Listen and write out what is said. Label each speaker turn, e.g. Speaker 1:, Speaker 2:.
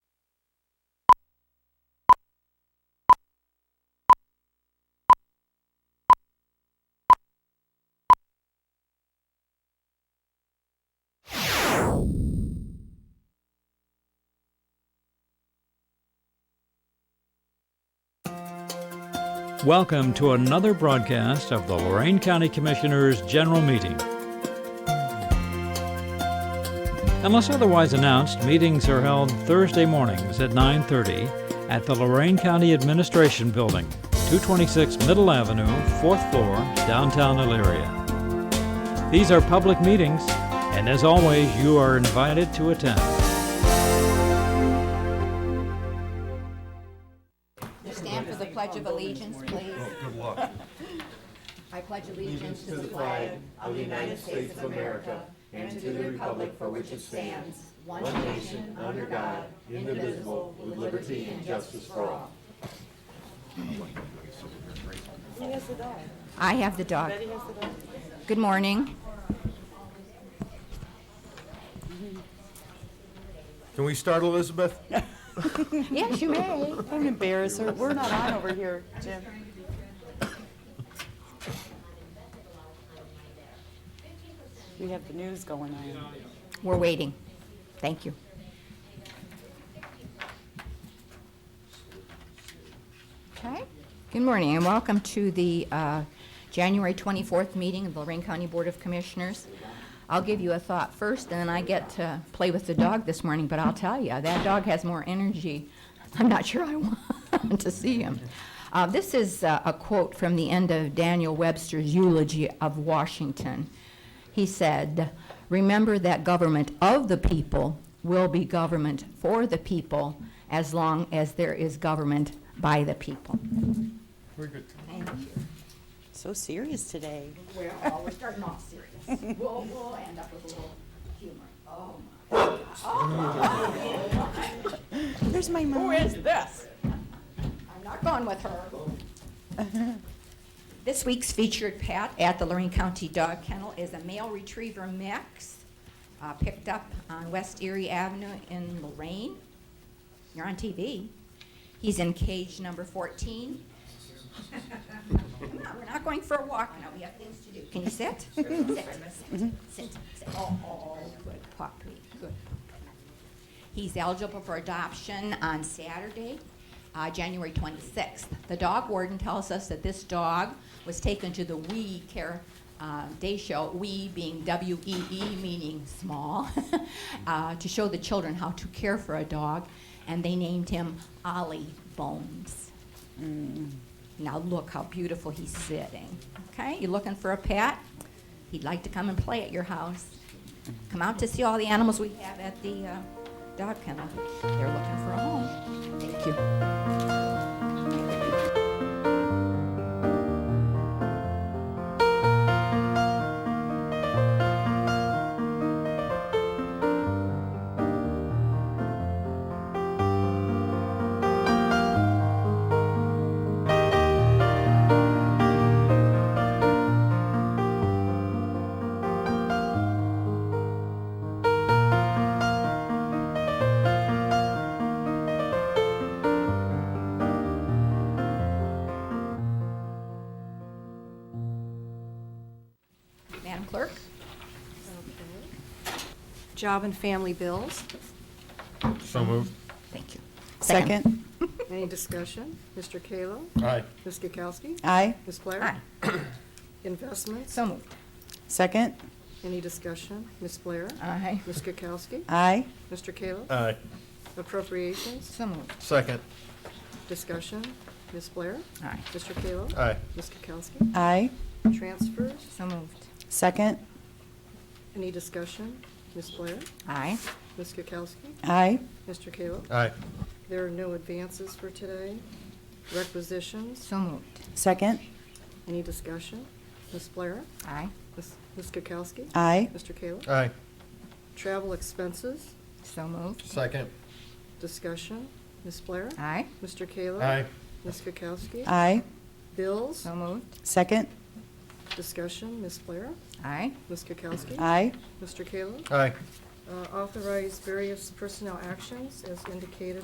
Speaker 1: Welcome to another broadcast of the Lorraine County Commissioners' General Meeting. Unless otherwise announced, meetings are held Thursday mornings at 9:30 at the Lorraine County Administration Building, 226 Middle Avenue, 4th floor, downtown Elyria. These are public meetings, and as always, you are invited to attend.
Speaker 2: Stand for the Pledge of Allegiance, please. Good luck. I pledge allegiance to the flag of the United States of America and to the republic for which it stands, one nation, under God, indivisible, with liberty and justice for all. I have the dog. Good morning.
Speaker 3: Can we start, Elizabeth?
Speaker 2: Yes, you may.
Speaker 4: Don't embarrass her. We're not on over here, Jim. We have the news going on.
Speaker 2: We're waiting. Thank you. Okay. Good morning and welcome to the uh, January 24th meeting of the Lorraine County Board of Commissioners. I'll give you a thought first, and then I get to play with the dog this morning, but I'll tell you, that dog has more energy. I'm not sure I want to see him. Uh, This is uh, a quote from the end of Daniel Webster's eulogy of Washington. He said, "Remember that government of the people will be government for the people as long as there is government by the people."
Speaker 3: Very good.
Speaker 4: So serious today.
Speaker 2: We're, oh, we're starting off serious. We'll, we'll end up with a little humor. Oh, my.
Speaker 4: There's my mom. Who is this?
Speaker 2: I'm not going with her. This week's featured pet at the Lorraine County Dog Kennel is a male retriever mix, uh, picked up on West Erie Avenue in Lorraine. You're on TV. He's in cage number 14. Come on, we're not going for a walk now, we have things to do. Can you sit? Sit, sit, sit, sit. Oh, oh, oh, good puppy, good puppy. He's eligible for adoption on Saturday, uh, January 26th. The dog warden tells us that this dog was taken to the WE Care uh, Day Show, WE being W-E-E, meaning small, uh, to show the children how to care for a dog, and they named him Ollie Bones. Mm. Now look how beautiful he's sitting. Okay, you looking for a pet? He'd like to come and play at your house. Come out to see all the animals we have at the uh, dog kennel. They're looking for a home. Thank you. Madam Clerk?
Speaker 5: Job and family bills.
Speaker 3: So moved.
Speaker 2: Thank you.
Speaker 4: Second.
Speaker 5: Any discussion? Mr. Kayla?
Speaker 3: Aye.
Speaker 5: Ms. Kukowski?
Speaker 4: Aye.
Speaker 5: Ms. Blair?
Speaker 2: Aye.
Speaker 5: Investments?
Speaker 2: So moved.
Speaker 4: Second.
Speaker 5: Any discussion? Ms. Blair?
Speaker 2: Aye.
Speaker 5: Ms. Kukowski?
Speaker 4: Aye.
Speaker 5: Mr. Kayla?
Speaker 3: Aye.
Speaker 5: Appropriations?
Speaker 2: So moved.
Speaker 3: Second.
Speaker 5: Discussion? Ms. Blair?
Speaker 2: Aye.
Speaker 5: Mr. Kayla?
Speaker 3: Aye.
Speaker 5: Ms. Kukowski?
Speaker 4: Aye.
Speaker 5: Transfers?
Speaker 2: So moved.
Speaker 4: Second.
Speaker 5: Any discussion? Ms. Blair?
Speaker 2: Aye.
Speaker 5: Ms. Kukowski?
Speaker 4: Aye.
Speaker 5: Mr. Kayla?
Speaker 3: Aye.
Speaker 5: There are no advances for today. Requisitions?
Speaker 2: So moved.
Speaker 4: Second.
Speaker 5: Any discussion? Ms. Blair?
Speaker 2: Aye.
Speaker 5: Ms. Ms. Kukowski?
Speaker 4: Aye.
Speaker 5: Mr. Kayla?
Speaker 3: Aye.
Speaker 5: Travel expenses,
Speaker 2: So moved.
Speaker 3: Second.
Speaker 5: discussion, Ms. Blair?
Speaker 2: Aye.
Speaker 5: Mr. Kayla?
Speaker 3: Aye.
Speaker 5: Ms. Kukowski?
Speaker 4: Aye.
Speaker 5: Bills,
Speaker 2: So moved.
Speaker 4: Second.
Speaker 5: discussion, Ms. Blair?
Speaker 2: Aye.
Speaker 5: Ms. Kukowski?
Speaker 4: Aye.
Speaker 5: Mr. Kayla?
Speaker 3: Aye.
Speaker 5: Uh, Authorize various personnel actions as indicated